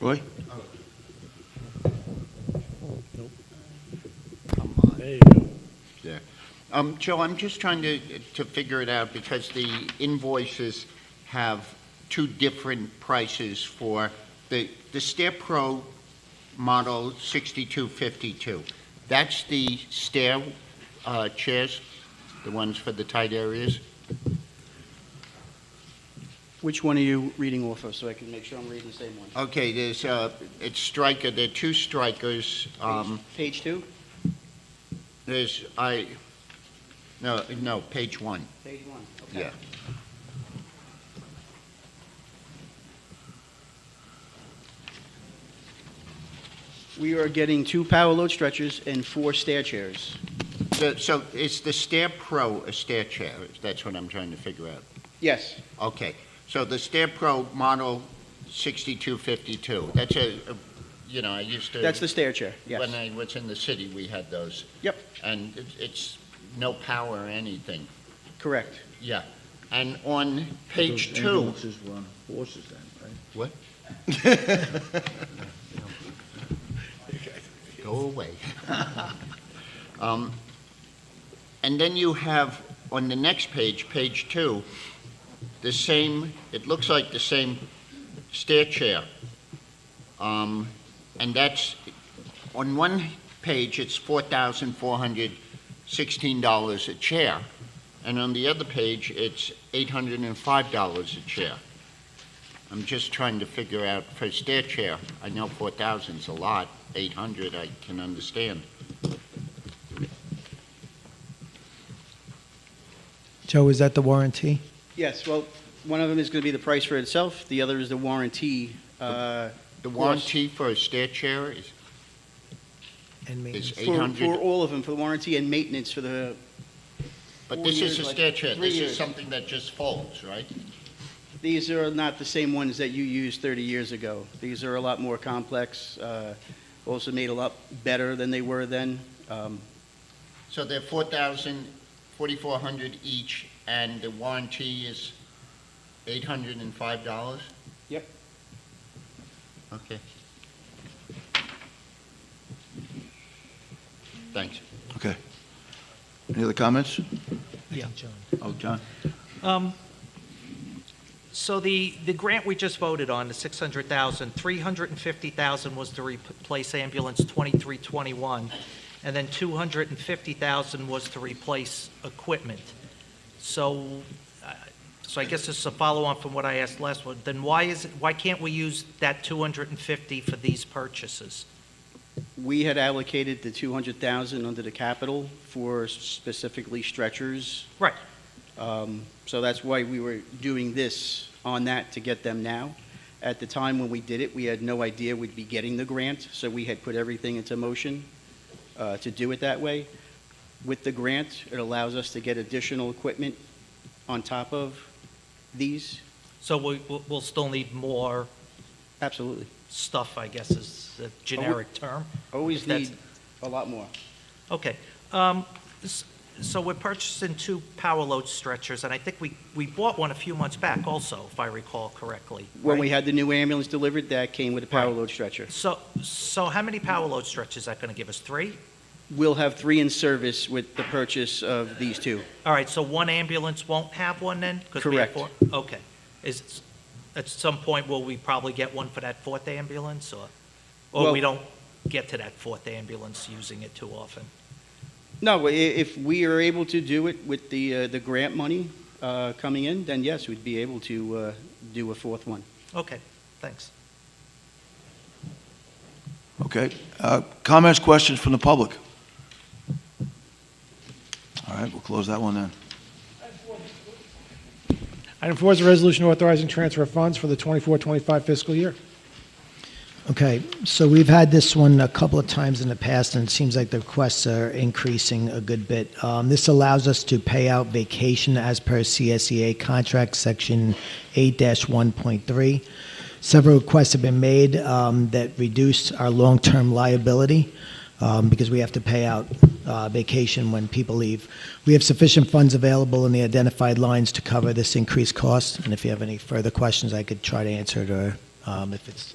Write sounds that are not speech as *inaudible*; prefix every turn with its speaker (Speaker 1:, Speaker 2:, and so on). Speaker 1: Roy?
Speaker 2: There you go.
Speaker 1: Yeah. Um, Joe, I'm just trying to, to figure it out because the invoices have two different prices for the, the Stair Pro model 6252. That's the stair, uh, chairs, the ones for the tight areas?
Speaker 3: Which one are you reading off of, so I can make sure I'm reading the same one?
Speaker 1: Okay, there's, uh, it's striker, there are two strikers, um,
Speaker 3: Page two?
Speaker 1: there's, I, no, no, page one,
Speaker 3: Page one, okay.
Speaker 1: yeah.
Speaker 3: We are getting two power load stretchers and four stair chairs.
Speaker 1: So- So is the Stair Pro a stair chair? That's what I'm trying to figure out.
Speaker 3: Yes,
Speaker 1: Okay, so the Stair Pro model 6252, that's a, a- you know, I used to...
Speaker 3: that's the stair chair,
Speaker 1: When
Speaker 3: yes.
Speaker 1: I was in the city, we had those.
Speaker 3: Yep.
Speaker 1: And it- it's no power or anything.
Speaker 3: Correct.
Speaker 1: Yeah. And on page
Speaker 4: Those
Speaker 1: two,
Speaker 4: ambulances were on horses then, right?
Speaker 1: go away. *laughs* Um, And then you have, on the next page, page two, the same, it looks like the same stair chair. Um, And that's, on one page, it's four thousand four hundred sixteen dollars a chair, and on the other page, it's eight hundred and five dollars a chair. I'm just trying to figure out, for stair chair, I know four thousand's a lot, 800, I can understand.
Speaker 5: Joe, is that the warranty?
Speaker 3: Yes, well, one of them is gonna be the price for itself, the other is the warranty, uh,
Speaker 1: The
Speaker 3: Yes.
Speaker 1: warranty for a stair chair is,
Speaker 5: And
Speaker 1: is
Speaker 5: maintenance?
Speaker 3: for, for
Speaker 1: 800,
Speaker 3: all of them, for the warranty and maintenance for the,
Speaker 1: but
Speaker 3: four
Speaker 1: this is
Speaker 3: years,
Speaker 1: a
Speaker 3: like
Speaker 1: stair chair,
Speaker 3: three
Speaker 1: this is
Speaker 3: years.
Speaker 1: something that just folds, right?
Speaker 3: these are not the same ones that you used thirty years ago. These are a lot more complex, uh, also made a lot better than they were then. Um,
Speaker 1: So they're 4,000, 4,400 each, and the warranty is $805?
Speaker 3: Yep.
Speaker 1: Okay. Thanks.
Speaker 4: Okay. Any other comments?
Speaker 5: Yeah.
Speaker 4: Oh, John?
Speaker 6: Um, So the, the grant we just voted on, the 600,000, 350,000 was to replace ambulance 2321, and then 250,000 was to replace equipment. So, uh, so I guess this is a follow-on from what I asked last one, then why is, it- why can't we use that 250 for these purchases?
Speaker 3: We had allocated the 200,000 under the capital for specifically stretchers.
Speaker 6: Right.
Speaker 3: Um, So that's why we were doing this on that to get them now. At the time when we did it, we had no idea we'd be getting the grant, so we had put everything into motion uh, to do it that way. With the grant, it allows us to get additional equipment on top of these.
Speaker 6: So we, we'll- we'll still need more
Speaker 3: Absolutely.
Speaker 6: stuff, I guess is the generic term?
Speaker 3: Always
Speaker 6: If that's-
Speaker 3: need a lot more.
Speaker 6: Okay. um, s- So we're purchasing two power load stretchers, and I think we, we bought one a few months back also, if I recall correctly.
Speaker 3: When
Speaker 6: right?
Speaker 3: we had the new ambulance delivered, that came with a power load stretcher.
Speaker 6: So, so how many power load stretchers is that going to give us? Three?
Speaker 3: We'll have three in service with the purchase of these two.
Speaker 6: All right, so one ambulance won't have one then? 'Cause we have
Speaker 3: Correct.
Speaker 6: four? Okay. Is, at some point, will we probably get one for that fourth ambulance, or, or
Speaker 3: Well-
Speaker 6: we don't get to that fourth ambulance using it too often?
Speaker 3: No, i- if we are able to do it with the, uh, the grant money uh, coming in, then yes, we'd be able to uh, do a fourth one.
Speaker 6: Okay, thanks.
Speaker 4: Okay. Uh, Comments, questions from the public? All right, we'll close that one then.
Speaker 7: Item four is a resolution authorizing transfer of funds for the 24-25 fiscal year.
Speaker 5: Okay, so we've had this one a couple of times in the past, and it seems like the requests are increasing a good bit. Um, This allows us to pay out vacation as per CSEA contract, section 8-1.3. Several requests have been made um, that reduce our long-term liability um, because we have to pay out uh, vacation when people leave. We have sufficient funds available in the identified lines to cover this increased cost, and if you have any further questions, I could try to answer it, or um, if it's